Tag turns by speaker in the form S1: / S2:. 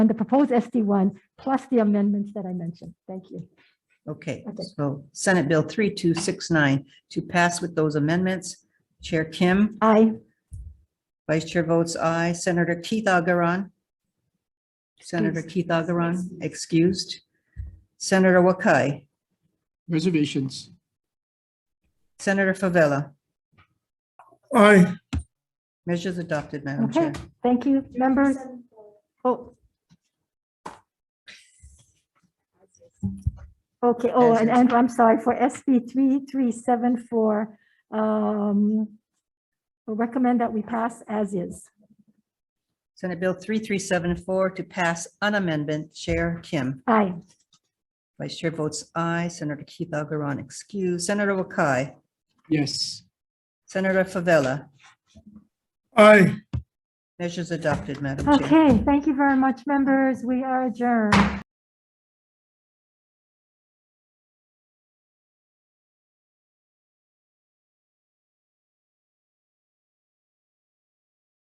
S1: and the proposed SD one, plus the amendments that I mentioned. Thank you.
S2: Okay,
S1: Okay.
S2: so Senate Bill 3269 to pass with those amendments. Chair Kim,
S1: Aye.
S2: Vice Chair votes aye. Senator Keith Agarone. Senator Keith Agarone, excused. Senator Wakai,
S3: reservations,
S2: Senator Favela.
S4: aye,
S2: Measures adopted, Madam
S1: Okay,
S2: Chair.
S1: thank you, members. Oh. Okay, oh, and Andrew, I'm sorry, for SB 3374, um, we recommend that we pass as is.
S2: Senate Bill 3374 to pass an amendment. Chair Kim,
S1: Aye.
S2: Vice Chair votes aye. Senator Keith Agarone, excused. Senator Wakai,
S3: yes,
S2: Senator Favela.
S4: aye.
S2: Measures adopted, Madam Chair.
S1: Okay, thank you very much, members. We are adjourned.